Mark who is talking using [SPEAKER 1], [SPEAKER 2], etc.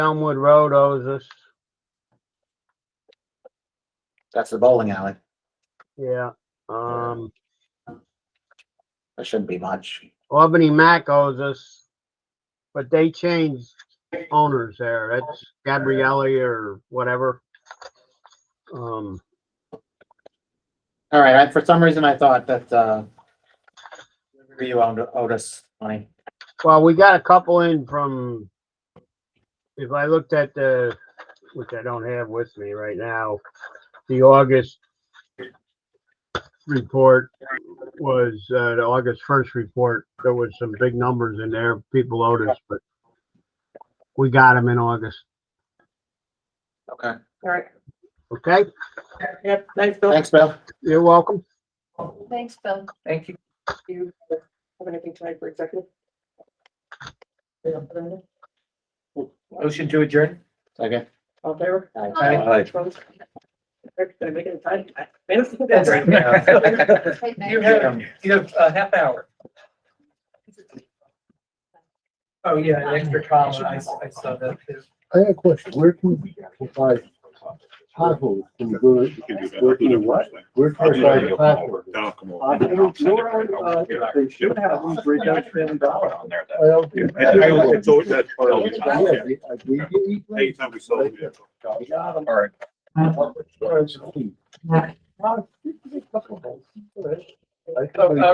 [SPEAKER 1] Elmwood Road owes us,
[SPEAKER 2] That's the bowling alley.
[SPEAKER 1] yeah. Um,
[SPEAKER 2] That shouldn't be much.
[SPEAKER 1] Albany Mac owes us, but they changed owners there. That's Gabrielli or whatever. Um,
[SPEAKER 2] All right, I, for some reason I thought that, uh, you owed Otis money.
[SPEAKER 1] well, we got a couple in from, if I looked at the, which I don't have with me right now, the August report was, uh, the August first report, there was some big numbers in there, people owed us, but we got them in August,
[SPEAKER 2] Okay.
[SPEAKER 3] All right.
[SPEAKER 1] okay?
[SPEAKER 3] Yep, thanks, Bill.
[SPEAKER 2] Thanks, Bill.
[SPEAKER 1] You're welcome.
[SPEAKER 3] Thanks, Bill.
[SPEAKER 2] Thank you.
[SPEAKER 3] Do you have anything tonight for executive?
[SPEAKER 2] Motion to adjourn. Second.
[SPEAKER 3] All in favor?
[SPEAKER 2] Aye.
[SPEAKER 3] Opposed? Rick, did I make it in time? Minutes?
[SPEAKER 2] You have-
[SPEAKER 4] You have a half hour. Oh, yeah, an extra column. I, I saw that too.
[SPEAKER 5] I have a question, where can we provide potholes from good, where can you what? Where can we provide potholes? I don't, nor, uh, they should have these bridge out trillion dollars. Well.
[SPEAKER 6] Yeah, I- I- I thought that-
[SPEAKER 5] Yeah, we- we get each one.
[SPEAKER 6] Anytime we sold it.
[SPEAKER 5] We got 'em.
[SPEAKER 6] All right.
[SPEAKER 3] Oh,
[SPEAKER 5] Uh, it's clean. Uh, it's a couple of those. I thought we-